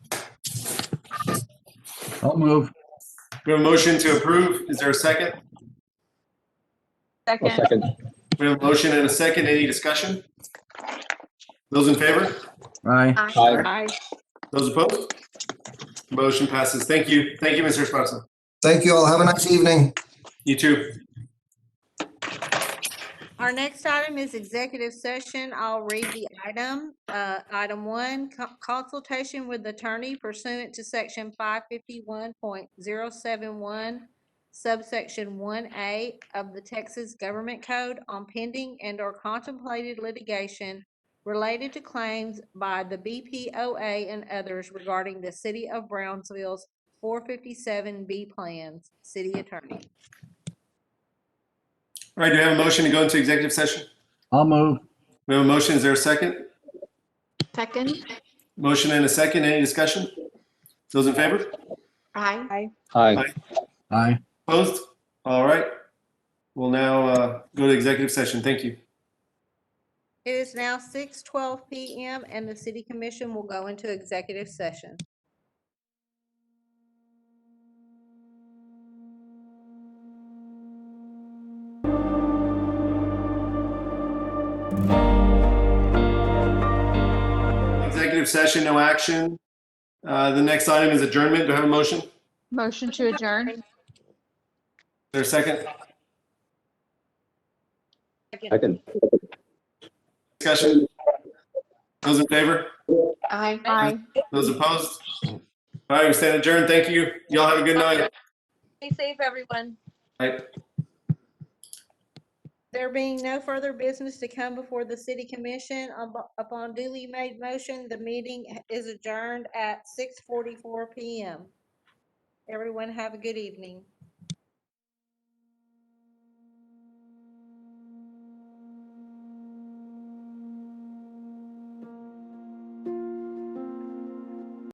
I'll move. We have a motion to approve. Is there a second? I'll Second. second. We have a motion and a second. Any discussion? Those in favor? Aye. Aye. Aye. Those opposed? Motion passes. Thank you. Thank you, Mr. Esparza. Thank you all. Have a nice evening. You too. Our next item is executive session. I'll read the item. Uh, Item one, co- consultation with attorney pursuant to section 551.071 subsection 1A of the Texas Government Code on pending and/or contemplated litigation related to claims by the BPOA and others regarding the city of Brownsville's 457B plans. City attorney. All right, do we have a motion to go into executive session? I'll move. We have a motion. Is there a second? Second. Motion and a second. Any discussion? Those in favor? Aye. Aye. Aye. Opposed? All right. We'll now uh, go to executive session. Thank you. It is now six twelve PM and the city commission will go into executive session. Executive session, no action. Uh, The next item is adjournment. Do I have a motion? Is Motion to adjourn. there a second? Second. Discussion? Those in favor? Aye. Aye. Those opposed? All right, we stand adjourned. Thank you. Y'all have a good night. Be safe, everyone. There being no further business to come before the city commission, up- upon duly made motion, the meeting is adjourned at six forty-four PM. Everyone have a good evening.